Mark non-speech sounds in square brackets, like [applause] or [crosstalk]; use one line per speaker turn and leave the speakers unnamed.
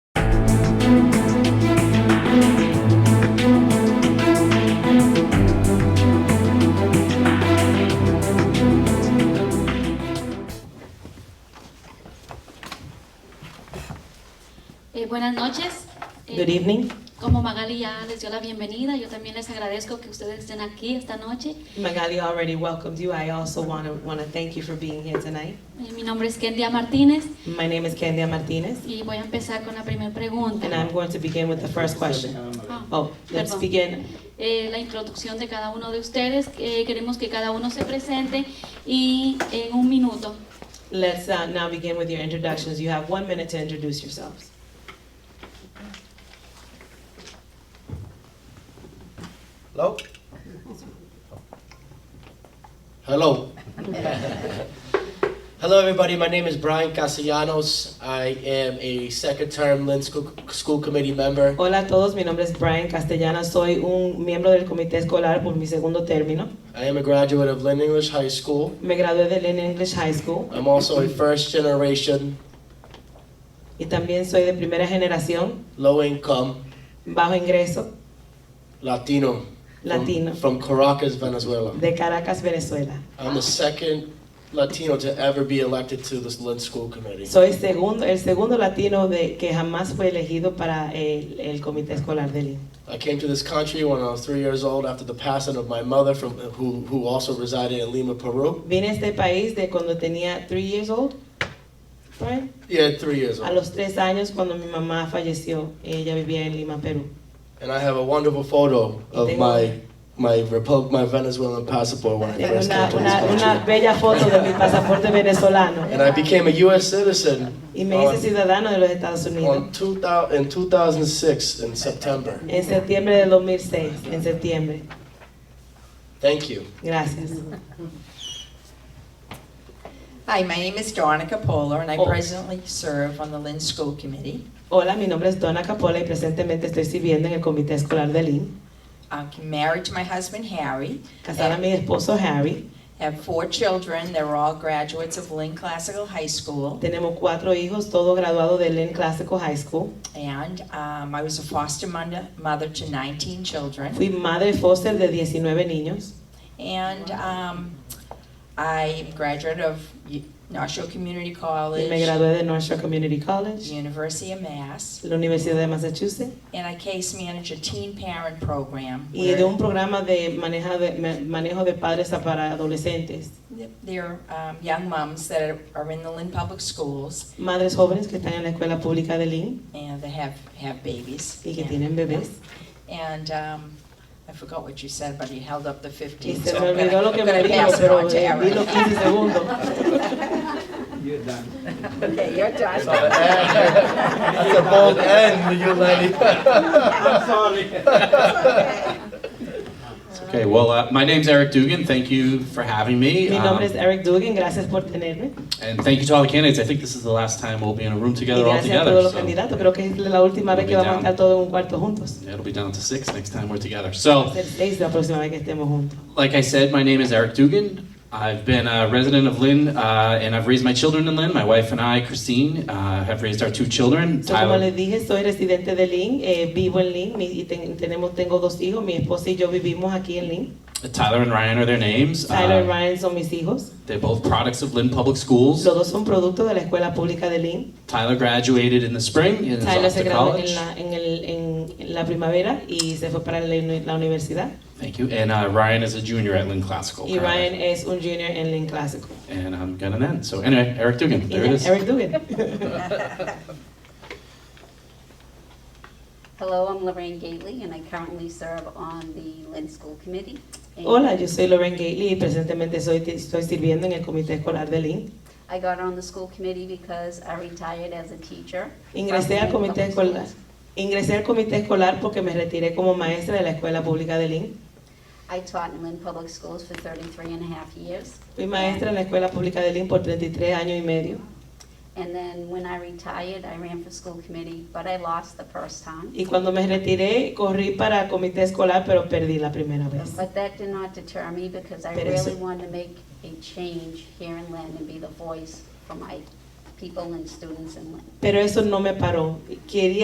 Eh, buenas noches. Eh,
Good evening.
Como Magali ya les dio la bienvenida, yo también les agradezco que ustedes estén aquí esta noche.
Magali already welcomed you. I also want to want to thank you for being here tonight.
Eh, mi nombre es Kendia Martínez
My name is Candia Martinez,
y voy a empezar con la primera
and
pregunta.
I'm going to begin with the first question.
Ah,
Oh, let's
perdón.
begin.
Eh, la introducción de cada uno de ustedes. Eh, queremos que cada uno se presente y en un minuto.
Let's uh, now begin with your introductions. You have one minute to introduce yourselves.
Hello? Hello. [laughs] Hello, everybody. My name is Brian Castellanos. I am a second term Lynn School, School Committee member.
Hola a todos, mi nombre es Brian Castellana, soy un miembro del comité escolar por mi segundo término.
I am a graduate of Lynn English High School.
Me gradué de Lynn English High School
I'm also a first generation
y también soy de primera generación,
low income
bajo ingreso,
Latino.
Latino.
From, from Caracas, Venezuela.
de Caracas, Venezuela.
I'm the second Latino to ever be elected to this Lynn School Committee.
Soy segundo, el segundo latino de, que jamás fue elegido para el, el comité escolar de Lynn.
I came to this country when I was three years old after the passing of my mother, from, who, who also resided in Lima, Peru.
Vine a este país de cuando tenía 3 years old, Brian.
Yeah, three years
a
old.
los 3 años cuando mi mamá falleció. Ella vivía en Lima, Perú.
And I have a wonderful photo of
Tengo-
my, my, Repub- my Venezuelan passport when I
Tengo
first came
una,
to this
una, una
country.
bella foto de mi pasaporte venezolano
And I became a U.S. citizen
y me hice
on,
ciudadano de los Estados Unidos
on 2000, in 2006 in September.
en septiembre del 2006, en septiembre.
Thank you.
Gracias.
Hi, my name is Donica Polar, and I
Oh.
presently serve on the Lynn School Committee.
Hola, mi nombre es Donna Capola y presentemente estoy sirviendo en el comité escolar de Lynn.
I'm married to my husband Harry,
Casada a mi esposo Harry.
have four children, they're all graduates of Lynn Classical High School,
Tenemos cuatro hijos, todos graduados de Lynn Classical High School.
and um, I was a foster mother mother to 19 children.
Fui madre foster de 19 niños.
And um, I graduate of U- North Shore Community
Y me
College,
gradué de North Shore Community College,
University of Mass,
la Universidad de Massachusetts,
and I case manage a teen parent program.
y de un programa de maneja de- ma- manejo de padres a para adolescentes.
They're um, young moms that are- are in the Lynn Public Schools,
Madres jóvenes que están en la escuela pública de Lynn
and they have, have babies.
y que tienen bebés.
And um, I forgot what you said, but you held up the
Y
15.
se
so
me
I'm gonna-
olvidó lo que
I'm
me
gonna
dijo,
pass it on
pero
to
eh, vi
Erin.
los 15 segundos.
You're done.
[laughs] Okay, you're
That's
done.
a bold end, you lady.
I'm sorry.
Okay, well, uh, my name's Eric Dugan. Thank you for having me.
Mi
Um,
nombre es Eric Dugan, gracias por tenerme.
and thank you to all the candidates. I think this is the last time we'll be in a room
Y
together all
gracias a
together.
todos los
so
candidatos, creo que es la última vez que vamos a estar todos en un cuarto juntos.
It'll be down to six next time we're
Va
together.
a
So,
ser seis la próxima vez que estemos juntos.
like I said, my name is Eric Dugan. I've been a resident of Lynn, uh, and I've raised my children in Lynn. My wife and I, Christine, uh, have raised our two children,
So, como
Tyler.
les dije, soy residente de Lynn, eh, vivo en Lynn mi- y ten- tenemos, tengo dos hijos, mi esposa y yo vivimos aquí en Lynn.
Tyler and Ryan are their names.
Tyler y
Um,
Ryan son mis hijos,
They're both products of Lynn Public Schools.
los dos son productos de la escuela pública de Lynn.
Tyler graduated in the spring and is
Tyler
off
se
to
graduó
college.
en la, en, el- en- en la primavera y se fue para la, uni- la universidad.
Thank you. And uh, Ryan is a junior at Lynn Classical.
Y
currently.
Ryan es un junior en Lynn Clásico.
And um, I'm gonna end. So anyway, Eric Dugan,
Y
there it
ya,
is.
Eric Dugan.
Hello, I'm Lorraine Gately, and I currently serve on the Lynn School Committee. And
Hola, yo soy Lauren Gately y presentemente soy, estoy sirviendo en el comité escolar de Lynn.
I got on the school committee because I retired as a teacher.
Ingresé al
from the
comité
public
escolar.
schools.
Ingresé al comité escolar porque me retiré como maestra de la escuela pública de Lynn.
I taught in Lynn Public Schools for 33 and a half years.
Fui maestra en la escuela pública de Lynn por 33 años y medio.
And then when I retired, I ran for school committee, but I lost the first time.
Y cuando me retiré, corrí para comité escolar, pero perdí la primera vez.
But that did not deter me because I
Pero eso-
really wanted to make a change here in Lynn and be the voice for my people and students in Lynn.
Pero eso no me paró. Quería